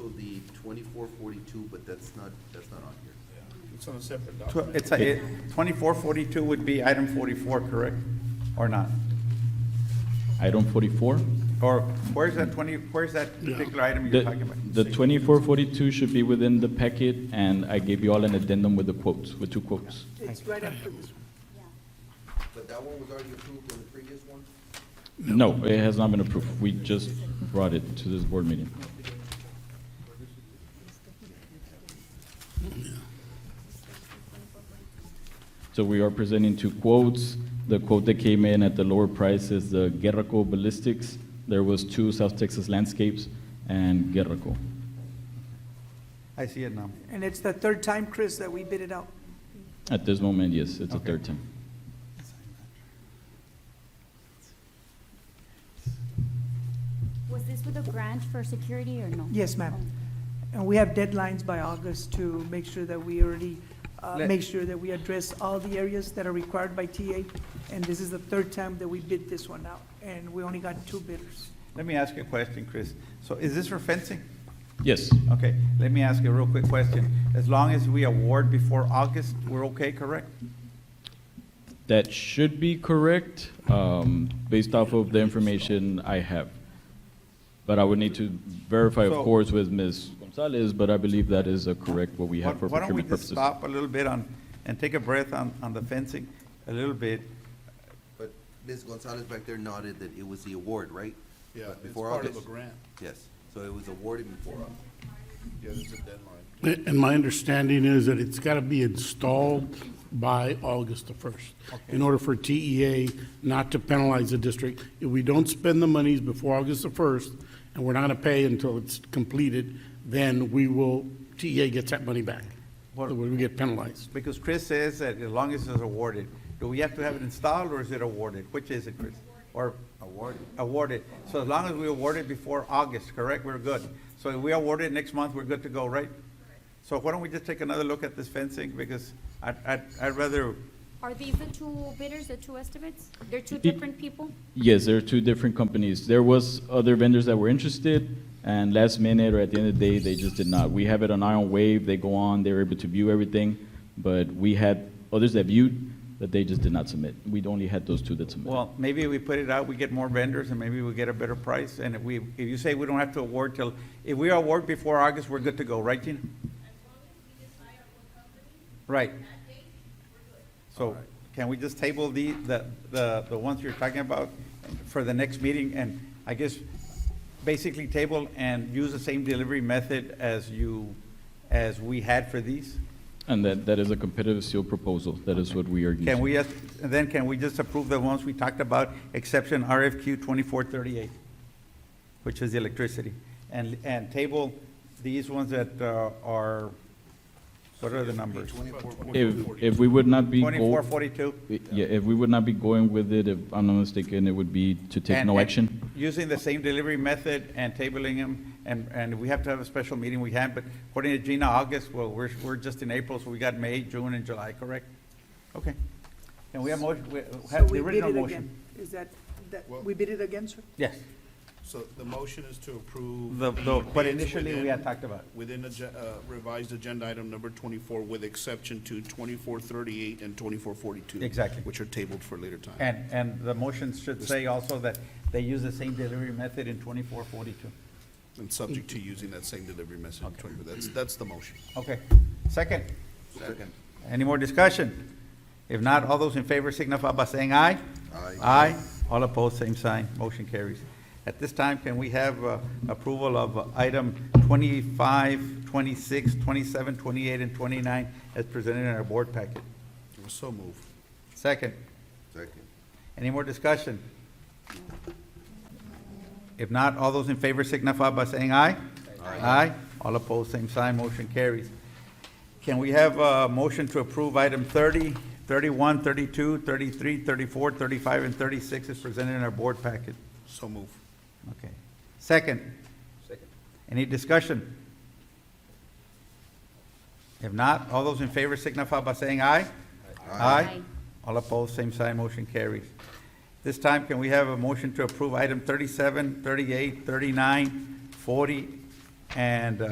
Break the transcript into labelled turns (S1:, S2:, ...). S1: also the twenty-four forty-two, but that's not, that's not on here.
S2: It's on a separate
S3: Tw-
S2: document.
S3: It's, a- it- 2442 would be item 44, correct? Or not?
S4: Item forty-four?
S3: Or where's that 20, where's that particular item you're talking
S4: The,
S3: about?
S4: the twenty-four forty-two should be within the packet, and I gave you all an addendum with the quotes, with two quotes.
S5: It's right after this one.
S1: But that one was already approved on the previous one?
S4: No, it has not been approved. We just brought it to this board meeting. So we are presenting two quotes. The quote that came in at the lower price is the Guerraco Ballistics. There was two South Texas Landscapes and Guerraco.
S3: I see it now.
S5: And it's the third time, Chris, that we bid it out.
S4: At this moment, yes, it's a
S3: Okay.
S4: third time.
S6: Was this with a grant for security or no?
S5: Yes, ma'am. And we have deadlines by August to make sure that we already, uh,
S3: Let-
S5: make sure that we address all the areas that are required by TA. And this is the third time that we bid this one out, and we only got two bidders.
S3: Let me ask you a question, Chris. So is this for fencing?
S4: Yes,
S3: Okay, let me ask you a real quick question. As long as we award before August, we're okay, correct?
S4: that should be correct, um, based off of the information I have. But I would need to verify,
S3: So-
S4: of course, with Ms. Gonzalez, but I believe that is a correct what we have for
S3: Why don't we
S4: procurement
S3: just
S4: purposes.
S3: stop a little bit on, and take a breath on, on the fencing a little bit?
S1: But Ms. Gonzalez back there nodded that it was the award, right?
S2: Yeah,
S1: But
S2: it's
S1: before
S2: part of a
S1: August.
S2: grant.
S1: Yes, so it was awarded before us.
S2: Yeah, there's a deadline.
S7: And my understanding is that it's got to be installed by August the 1st in order for TEA not to penalize the district. If we don't spend the monies before August the 1st and we're not going to pay until it's completed, then we will, TEA gets that money back. Otherwise, we get penalized.
S3: Because Chris says that as long as it's awarded, do we have to have it installed or is it awarded? Which is it, Chris? Or? Awarded. Awarded. So as long as we award it before August, correct, we're good. So if we award it next month, we're good to go, right? So why don't we just take another look at this fencing because I'd, I'd, I'd rather,
S6: Are these the two bidders, the two estimates? They're two different people?
S4: Yes, there are two different companies. There was other vendors that were interested, and last minute or at the end of the day, they just did not. We have it on Iron Wave, they go on, they were able to view everything, but we had others that viewed, but they just did not submit. We'd only had those two that submitted.
S3: well, maybe we put it out, we get more vendors and maybe we get a better price. And if we, if you say we don't have to award till, if we award before August, we're good to go, right, Gina? Right. So can we just table the, the, the the ones you're talking about for the next meeting? And I guess basically table and use the same delivery method as you, as we had for these?
S4: And that, that is a competitive seal proposal, that is what we are using.
S3: Can we, just- then can we just approve the ones we talked about, exception RFQ 2438, which is the electricity? And, and table these ones that uh, are, what are the numbers?
S4: If, if we would not be. go-
S3: 2442?
S4: Yeah, if we would not be going with it, if I'm not mistaken, it would be to take
S3: And-
S4: no
S3: and
S4: action.
S3: Using the same delivery method and tabling them, and, and we have to have a special meeting, we have, but according to Gina, August, well, we're, we're just in April, so we got May, June, and July, correct? Okay. And we have motion, we
S5: So
S3: have the
S5: we bid
S3: original
S5: it
S3: motion.
S5: again. Is that, that,
S2: Well-
S5: we bid it again, sir?
S3: Yes,
S2: So the motion is to approve.
S3: the, the, what
S2: bids
S3: initially we
S2: within-
S3: had talked about.
S2: Within agen- uh, revised agenda item number 24 with exception to 2438 and 2442.
S3: Exactly.
S2: Which are tabled for later time.
S3: And, and the motion should say also that they use the same delivery method in twenty-four forty-two.
S2: And subject to using that same delivery message. That's, that's the motion.
S3: Okay, second? Second. Any more discussion? If not, all those in favor signify by saying aye.
S1: Aye.
S3: Aye, all opposed, same sign, motion carries. At this time, can we have uh, approval of uh, item 25, 26, 27, 28, and twenty-nine as presented in our board packet?
S2: So move.
S3: Second?
S1: Second.
S3: Any more discussion? If not, all those in favor signify by saying aye. Aye. All opposed, same sign, motion carries. Can we have a motion to approve item 30, 31, 32, 33, 34, 35, and 36 as presented in our board packet?
S2: So move.
S3: Okay. Second? Second. Any discussion? If not, all those in favor signify by saying aye. Aye. All opposed, same sign, motion carries. This time, can we have a motion to approve item 37, 38, 39, 40, and uh,